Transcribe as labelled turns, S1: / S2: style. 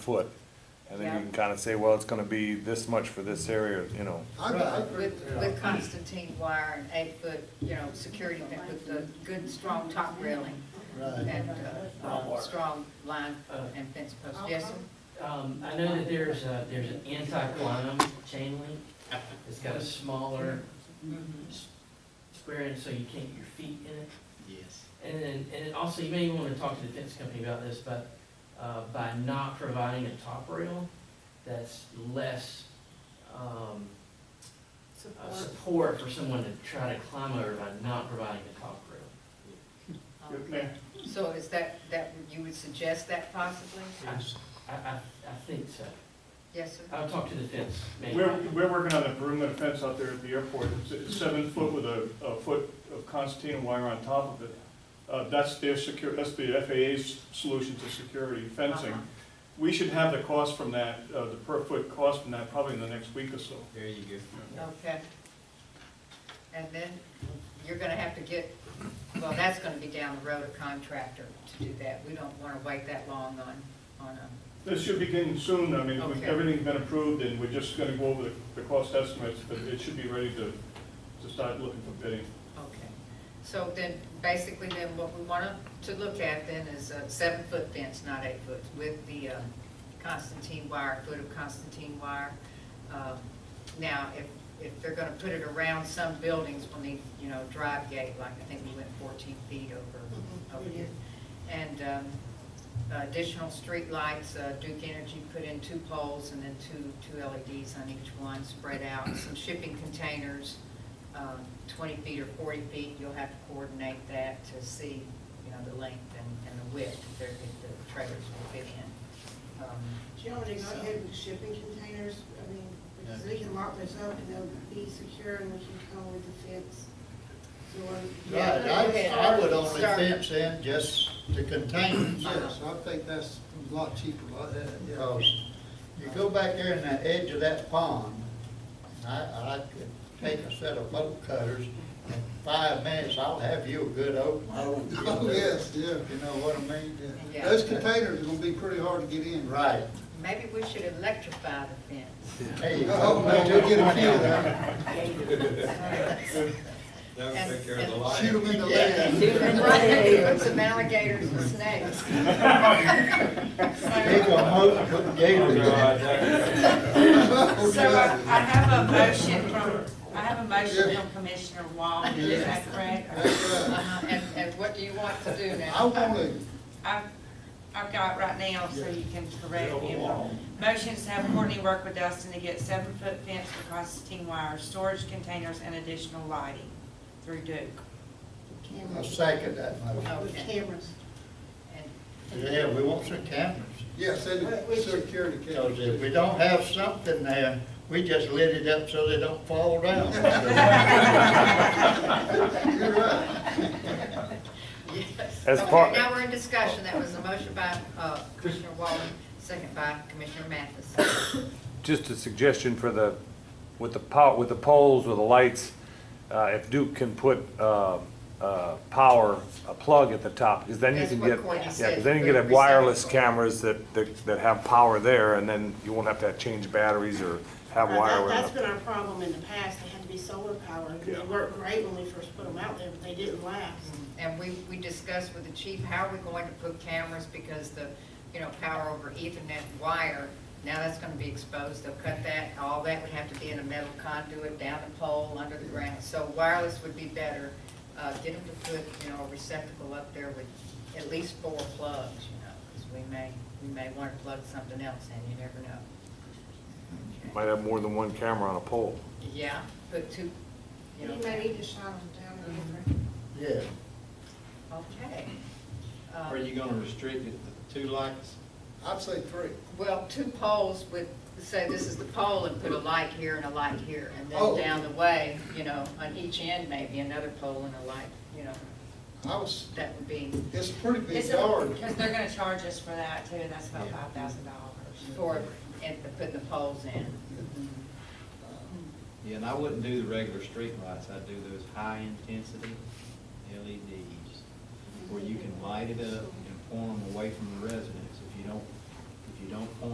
S1: foot. And then you
S2: Yeah.
S1: can kind of say, well, it's gonna be this much for this area, you know.
S3: I, I agree,
S2: With,
S3: yeah.
S2: with Constantine wire and eight foot, you know, security fence with the good, strong top railing
S3: Right.
S2: and, uh, uh, strong line and fence post, yes, sir?
S4: Uh, Um, I know that there's a, there's an anti-quantum chain link. It's got a smaller
S2: Mm-hmm.
S4: s- square in, so you can't get your feet in it.
S5: Yes.
S4: And then, and also you may want to talk to the fence company about this, but, uh, by not providing a top rail, that's less, um, uh, support for someone to try to climb over by not providing a top rail.
S2: Okay. Um, So is that, that, you would suggest that possibly?
S4: I, I, I think so.
S2: Yes, sir?
S4: I'll talk to the fence man.
S6: We're, we're working on a perimeter fence out there at the airport, it's, it's seven foot with a, a foot of Constantine wire on top of it. Uh, that's their secure, that's the FAA's solution to security fencing.
S2: Uh-huh.
S6: We should have the cost from that, uh, the per foot cost from that probably in the next week or so.
S5: There you go.
S2: Okay. And then you're gonna have to get, well, that's gonna be down the road, a contractor to do that. We don't wanna wait that long on, on a,
S6: This should begin soon, I mean,
S2: Okay.
S6: we- everything's been approved and we're just gonna go over the, the cost estimates, but it should be ready to, to start looking for bidding.
S2: okay. So then, basically then, what we want to look at then is a seven-foot fence, not eight foot, with the uh, Constantine wire, foot of Constantine wire. Um, Now, if, if they're gonna put it around some buildings, we'll need, you know, drive gate, like I think we went fourteen feet over, over here. And um, additional streetlights, uh, Duke Energy put in two poles and then two, two LEDs on each one, spread out, some shipping containers, um, 20 feet or 40 feet, you'll have to coordinate that to see, you know, the length and, and the width that they're- that the trailers will fit in. Um,
S7: Joe, they not having shipping containers, I mean, because they can lock this up and they'll be secure and we can come with the fence. So, um,
S2: Yeah.
S3: Right, I, I would only
S2: Start.
S3: fence in just the containers,
S2: Uh-huh.
S3: yes, I think that's a lot cheaper, like that, because you go back there in the edge of that pond, and I, I could take a set of boat cutters, in five minutes, I'll have you a good open. I won't get
S8: Oh,
S3: there.
S8: yes, yeah.
S3: You know what I mean?
S2: Yeah.
S8: Those containers are gonna be pretty hard to get in.
S3: Right.
S2: Maybe we should electrify the fence.
S3: Hey, you
S8: Oh, man,
S3: go.
S8: you'll get a few of them.
S5: That
S2: And-
S5: would take care of the
S2: and-
S5: light.
S8: Shoot them in the
S3: Yeah.
S8: leg.
S2: Right, Put some alligators and snakes.
S3: Big old moat, put gators in.
S9: So I I have a motion from, I have a motion from Commissioner Wall, is that correct? Uh,
S8: That's right.
S2: Uh-huh, And, and what do you want to do now?
S8: I wanna,
S9: I've, I've got right now, so you can correct me. Motion's to have Courtney work with Dustin to get seven-foot fence for Constantine wire, storage containers, and additional lighting through Duke.
S3: I
S7: cameras,
S3: second that motion.
S7: with cameras.
S2: And
S3: Yeah, we want some cameras.
S8: yes, and the security
S3: Because
S8: cameras.
S3: if we don't have something there, we just lit it up so they don't fall down.
S8: You're right.
S2: Yes.
S1: As
S2: Okay,
S1: part-
S2: Now we're in discussion. That was a motion by uh, Commissioner Wallen, second by Commissioner Mathis.
S1: Just a suggestion for the, with the po, with the poles, with the lights, uh, if Duke can put, uh, uh, power, a plug at the top, because then you
S2: That's
S1: can
S2: what
S1: get.
S2: Courtney
S1: Yeah,
S2: said,
S1: because then you
S2: put
S1: can
S2: a
S1: have wireless
S2: receptacle.
S1: cameras that, that, that have power there, and then you won't have to change batteries or have
S7: Uh,
S1: wire.
S7: that-
S1: where-
S7: That's been our problem in the past, they had to be solar powered, they
S1: Yeah.
S7: worked great when we first put them out there, but they didn't last.
S2: And we, we discussed with the chief, how are we going to put cameras because the, you know, power over ethernet wire, now that's going to be exposed. They'll cut that, all that would have to be in a metal conduit, down the pole, under the ground. So wireless would be better. Uh, Get them to put, you know, a receptacle up there with at least four plugs, you know, because we may, we may want to plug something else in, you never know. Okay.
S1: Might have more than one camera on a pole.
S2: Yeah, put two, you
S7: You
S2: know.
S7: may need to shine them down a little bit.
S3: Yeah.
S2: Okay. Um,
S5: Are you gonna restrict it to two lights?
S8: I'd say three.
S2: Well, two poles with, say this is the pole and put a light here and a light here. And then
S8: Oh.
S2: down the way, you know, on each end maybe another pole and a light, you know,
S8: I was,
S2: that would be
S8: it's a pretty big
S9: Because
S8: yard.
S9: they're gonna charge us for that too, and that's about five thousand dollars.
S2: for, and the- putting the poles in.
S5: Yeah, and I wouldn't do the regular street lights. I'd do those high-intensity E LEDs where you can light it up and point them away from the residents. If you don't, if you don't point